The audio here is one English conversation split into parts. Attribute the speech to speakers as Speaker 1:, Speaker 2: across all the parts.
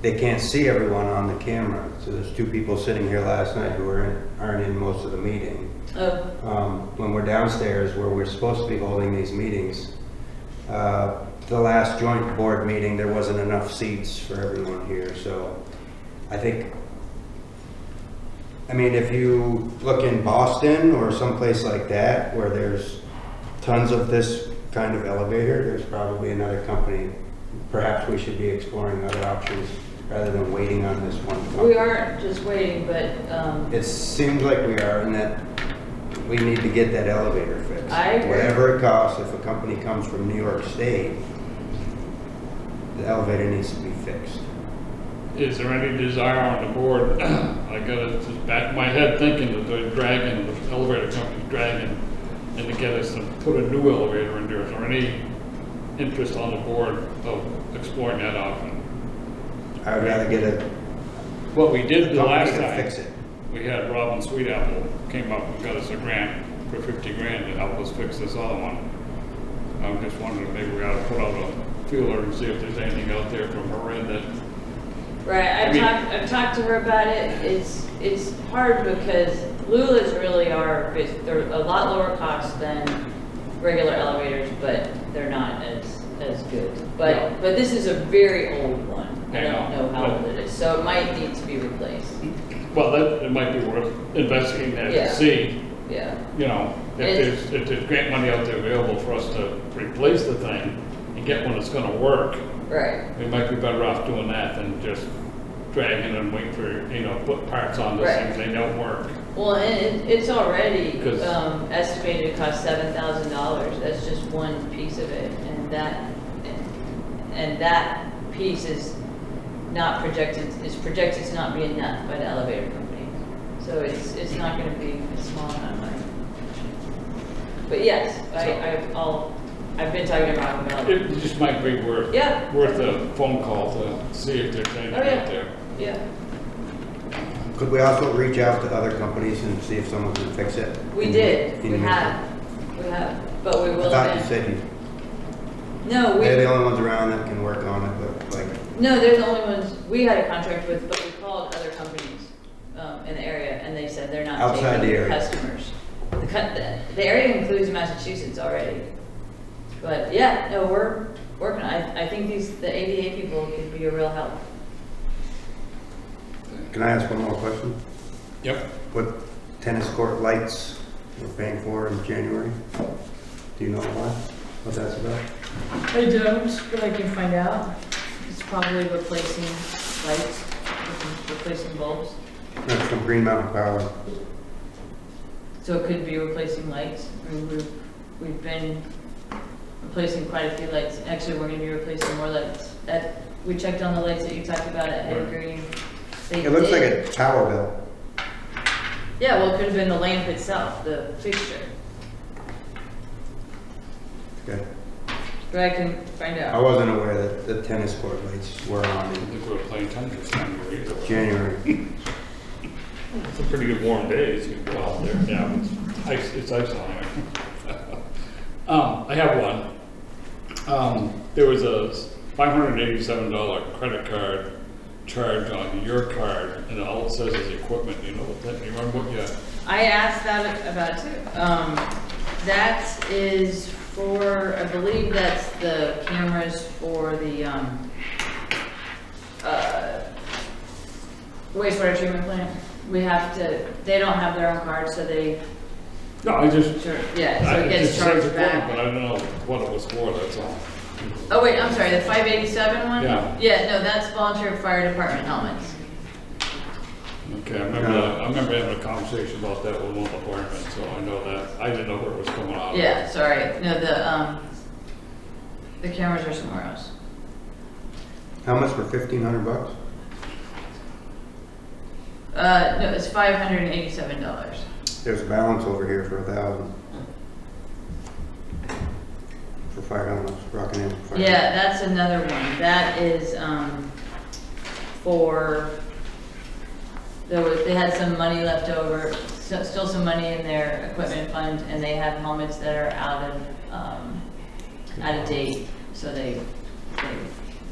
Speaker 1: they can't see everyone on the camera. So there's two people sitting here last night who aren't, aren't in most of the meeting.
Speaker 2: Oh,
Speaker 1: Um, When we're downstairs where we're supposed to be holding these meetings, uh, the last joint board meeting, there wasn't enough seats for everyone here, so I think, I mean, if you look in Boston or someplace like that where there's tons of this kind of elevator, there's probably another company. Perhaps we should be exploring other options rather than waiting on this one company.
Speaker 2: we aren't just waiting, but um,
Speaker 1: It seems like we are, and that we need to get that elevator fixed.
Speaker 2: I agree.
Speaker 1: Whatever it costs, if a company comes from New York State, the elevator needs to be fixed.
Speaker 3: Is there any desire on the board, I got it to the back of my head thinking that they're dragging, the elevator company's dragging, and to get us to put a new elevator in there, is there any interest on the board of exploring that option?
Speaker 1: I would rather get a
Speaker 3: What we did the
Speaker 1: company
Speaker 3: last
Speaker 1: to fix
Speaker 3: time,
Speaker 1: it.
Speaker 3: we had Robin Sweetapple came up and got us a grant for fifty grand to help us fix this other one. I'm just wondering, if maybe we ought to put out a feeler and see if there's anything out there from her end that
Speaker 2: right, I've
Speaker 3: I mean-
Speaker 2: talked, I've talked to her about it. It's, it's hard because Lula's really are, they're a lot lower cost than regular elevators, but they're not as, as good.
Speaker 3: No.
Speaker 2: But, but this is a very old one. I
Speaker 3: I
Speaker 2: don't
Speaker 3: know,
Speaker 2: know how
Speaker 3: but-
Speaker 2: old it is, so it might need to be replaced.
Speaker 3: Well, that, it might be worth investigating that
Speaker 2: Yeah.
Speaker 3: to see,
Speaker 2: Yeah,
Speaker 3: you know, if
Speaker 2: It's-
Speaker 3: there's, if there's grant money out there available for us to replace the thing and get one that's gonna work,
Speaker 2: right,
Speaker 3: we might be better off doing that than just dragging and waiting for, you know, put parts on those
Speaker 2: Right.
Speaker 3: things, they don't work.
Speaker 2: well, and it, it's already
Speaker 3: 'Cause-
Speaker 2: um, estimated to cost seven thousand dollars, that's just one piece of it, and that, and that piece is not projected, is projected to not be enough by the elevator company, so it's, it's not gonna be a small amount of money. But yes,
Speaker 3: So-
Speaker 2: I, I, I'll, I've been talking about about it,
Speaker 3: It just might be worth,
Speaker 2: Yeah.
Speaker 3: worth a phone call to see if there's anything
Speaker 2: Oh, yeah.
Speaker 3: out there.
Speaker 2: yeah,
Speaker 1: Could we also reach out to other companies and see if someone can fix it?
Speaker 2: we
Speaker 1: In-
Speaker 2: did, we
Speaker 1: in-
Speaker 2: have, we have, but we
Speaker 1: I
Speaker 2: will
Speaker 1: thought Mm-hmm. you
Speaker 2: then-
Speaker 1: said you,
Speaker 2: No, we.
Speaker 1: they're the only ones around that can work on it, but like,
Speaker 2: No, they're the only ones we had a contract with, but we called other companies um, in the area, and they said they're not
Speaker 1: Outside the
Speaker 2: taking
Speaker 1: area.
Speaker 2: customers. The cut- The the area includes Massachusetts already. But yeah, no, we're working, I, I think these, the ADA people could be a real help.
Speaker 1: can I ask one more question?
Speaker 3: Yep.
Speaker 1: What tennis court lights we're paying for in January? Do you know why? What that's about?
Speaker 4: I don't, but I can find out. It's probably replacing lights, replacing bulbs.
Speaker 1: That's from Green Mountain Power.
Speaker 4: So it could be replacing lights. I mean, we've, we've been replacing quite a few lights. Actually, we're gonna be replacing more lights. That, we checked on the lights that you talked about at Head Green. They
Speaker 1: It looks like
Speaker 4: did-
Speaker 1: a power bill.
Speaker 4: Yeah, well, it could have been the lamp itself, the fixture,
Speaker 1: Okay.
Speaker 4: but I can find
Speaker 1: I
Speaker 4: out.
Speaker 1: wasn't aware that the tennis court lights were on
Speaker 3: I
Speaker 1: in
Speaker 3: think we're playing tennis this time of year.
Speaker 1: January.
Speaker 3: It's a pretty good warm day, as you go out there. Yeah, it's ice, it's ice on there. Um, I have one. Um, there was a five hundred eighty-seven dollar credit card charge on your card, and all it says is equipment, you know, what that, you remember what you,
Speaker 4: I asked that about it too. Um, that is for, I believe that's the cameras for the, um, uh, wastewater treatment plant. We have to, they don't have their own cards, so they,
Speaker 3: no, I just.
Speaker 4: sure, yeah,
Speaker 3: I-
Speaker 4: so it gets
Speaker 3: just says
Speaker 4: charged
Speaker 3: equipment,
Speaker 4: back.
Speaker 3: But I don't know what it was for, that's all.
Speaker 4: Oh, wait, I'm sorry, the five eighty-seven one?
Speaker 3: Yeah.
Speaker 4: Yeah, no, that's volunteer fire department helmets.
Speaker 3: Okay, I remember, that- I remember having a conversation about that with one of the firemen, so I know that, I didn't know where it was coming out of.
Speaker 4: Yeah, sorry, no, the, um, the cameras are somewhere else.
Speaker 1: How much for fifteen hundred bucks?
Speaker 4: Uh, no, it's five hundred and eighty-seven dollars.
Speaker 1: There's a balance over here for a thousand. For fire elements, Rockin' Inn. fire.
Speaker 4: Yeah, that's another one. That is, um, for, there was, they had some money left over, so- still some money in their equipment fund, and they have helmets that are out of, um, out of date, so they, they,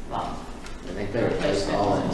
Speaker 4: well,
Speaker 5: I think
Speaker 4: they
Speaker 5: they're
Speaker 4: replaced
Speaker 5: just
Speaker 4: it.
Speaker 5: all in